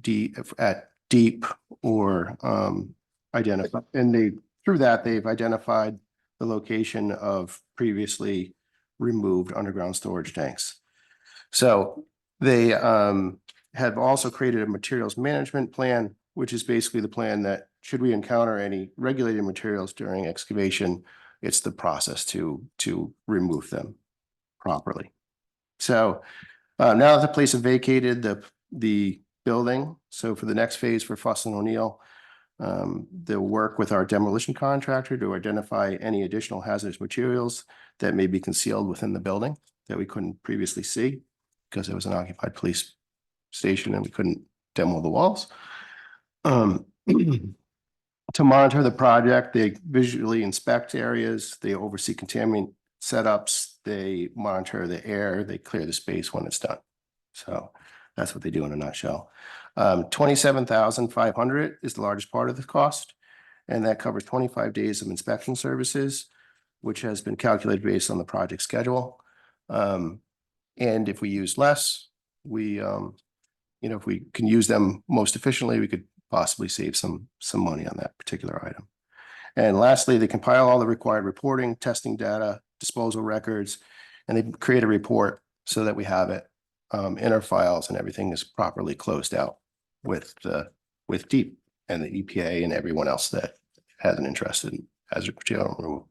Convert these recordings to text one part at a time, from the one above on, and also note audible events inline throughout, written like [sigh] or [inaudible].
deep, at deep or um identify, and they, through that, they've identified the location of previously removed underground storage tanks. So they um have also created a materials management plan, which is basically the plan that should we encounter any regulated materials during excavation, it's the process to to remove them properly. So uh, now that the place is vacated, the the building, so for the next phase for Fuss and O'Neill, um, they'll work with our demolition contractor to identify any additional hazardous materials that may be concealed within the building that we couldn't previously see because it was an occupied police station and we couldn't demo the walls. Um, [clears throat] to monitor the project, they visually inspect areas, they oversee contaminant setups, they monitor the air, they clear the space when it's done. So that's what they do in a nutshell. Um, twenty-seven thousand five hundred is the largest part of the cost. And that covers twenty-five days of inspection services, which has been calculated based on the project schedule. Um, and if we use less, we, um, you know, if we can use them most efficiently, we could possibly save some, some money on that particular item. And lastly, they compile all the required reporting, testing data, disposal records, and they create a report so that we have it um, in our files and everything is properly closed out with the, with deep and the EPA and everyone else that has an interest in hazard material removal.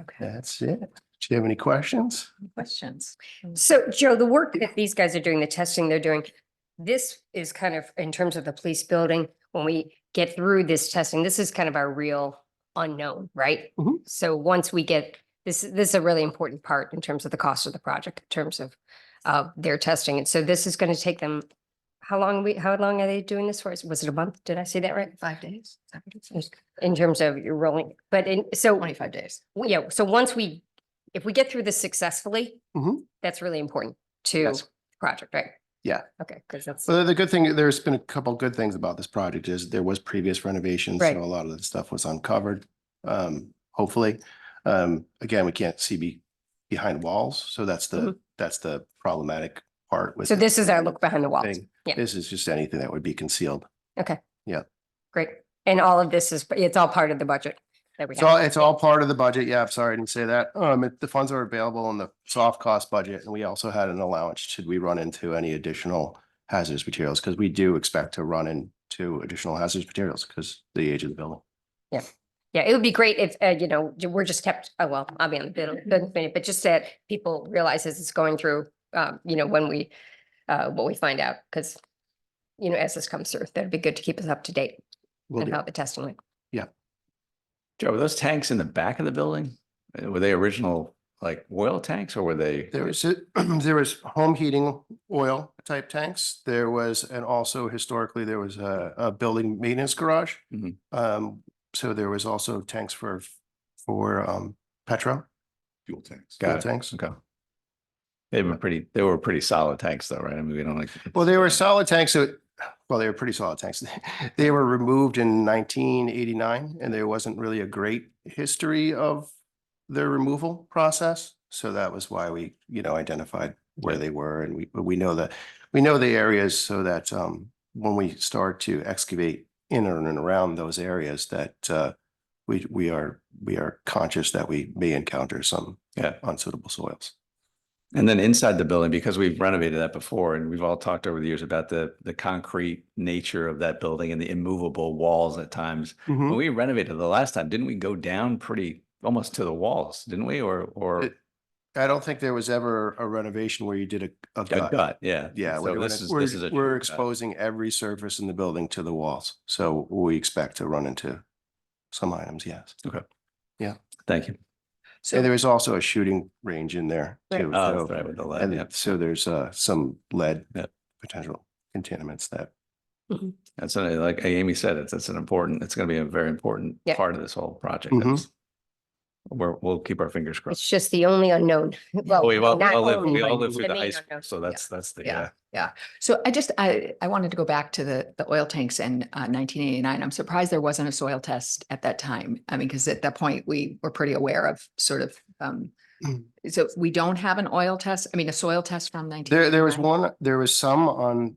Okay, That's it. Do you have any questions? questions? So Joe, the work that these guys are doing, the testing they're doing, this is kind of, in terms of the police building, when we get through this testing, this is kind of our real unknown, right? Mhm. So once we get, this, this is a really important part in terms of the cost of the project, in terms of uh, their testing. And so this is going to take them, how long we, how long are they doing this for? Was it a month? Did I say that right? Five days? Is that what it says? In terms of your rolling, but in, so. Twenty-five days. Well, yeah, so once we, if we get through this successfully, Mhm. that's really important to Yes. the project, right? Yeah. Okay, because that's, Well, the good thing, there's been a couple good things about this project is there was previous renovations, Right. so a lot of the stuff was uncovered. Um, hopefully, um, again, we can't see be behind walls, so that's the, that's the problematic part with. Mm-hmm. so the this is our look behind the walls. thing. yeah. This is just anything that would be concealed. Great. And all of this is, it's all part of the budget that we It's all, have. it's all part of the budget. Yeah, I'm sorry, I didn't say that. Um, it- the funds are available in the soft cost budget, and we also had an allowance should we run into any additional hazardous materials, because we do expect to run into additional hazardous materials because the age of the building. Yeah, it would be great if, uh, you know, j- we're just kept, oh, well, I'll be on the bill, bill minute, but just that people realize as it's going through, um, you know, when we, uh, what we find out, because, you know, as this comes through, that'd be good to keep us up to date Will on do. how the testing went. Joe, were those tanks in the back of the building? Uh, Were they original like oil tanks or were they? There was, [clears throat] a- there was home heating oil type tanks. There was, and also historically, there was a, a building maintenance garage. Mhm. Um, so there was also tanks for, for, um, petro, Fuel tanks. fuel Got it. tanks. Okay. They've been pretty, they were pretty solid tanks though, right? I mean, we don't like. Well, they were solid tanks, so, well, they were pretty solid tanks. [laughs] They were removed in nineteen eighty-nine, and there wasn't really a great history of their removal process. So that was why we, you know, identified where Yeah. they were, and we, we know the, we know the areas so that, um, when we start to excavate in and around those areas that, uh, we, we are, we are conscious that we may encounter some Yeah. unsuitable soils. And then inside the building, because we've renovated that before and we've all talked over the years about the, the concrete nature of that building and the immovable walls at times. Hmm? When we renovated the last time, didn't we go down pretty, almost to the walls, didn't we? Or, or It- I don't think there was ever a renovation where you did a, a a gut. gut, yeah. Yeah, So we're, this gonna- is, this is a. we're, we're true gut. exposing every surface in the building to the walls, so we expect to run into some items, yes. Thank you. And So, there is also a shooting range in there Right. too, Oh, so, that's right, with the lead, yeah. and so there's, uh, some lead Yep. potential contaminants that, That's a- like Amy said, it's, it's an important, it's going to be a very important Yeah. part of this whole project. Mhm. That's- We're, we'll keep our fingers It's crossed. just the only unknown. [laughs] Well, Oh, We've all, we not all lived- only, we all but lived through the main high school, unknown. so that's, that's the, Yeah. yeah. so I just, I, I wanted to go back to the, the oil tanks in uh, nineteen eighty-nine. I'm surprised there wasn't a soil test at that time. I mean, because at that point, we were pretty aware of sort of, um, Mm. so we don't have an oil test, I mean, a soil test from nineteen. there, there was one, there was some on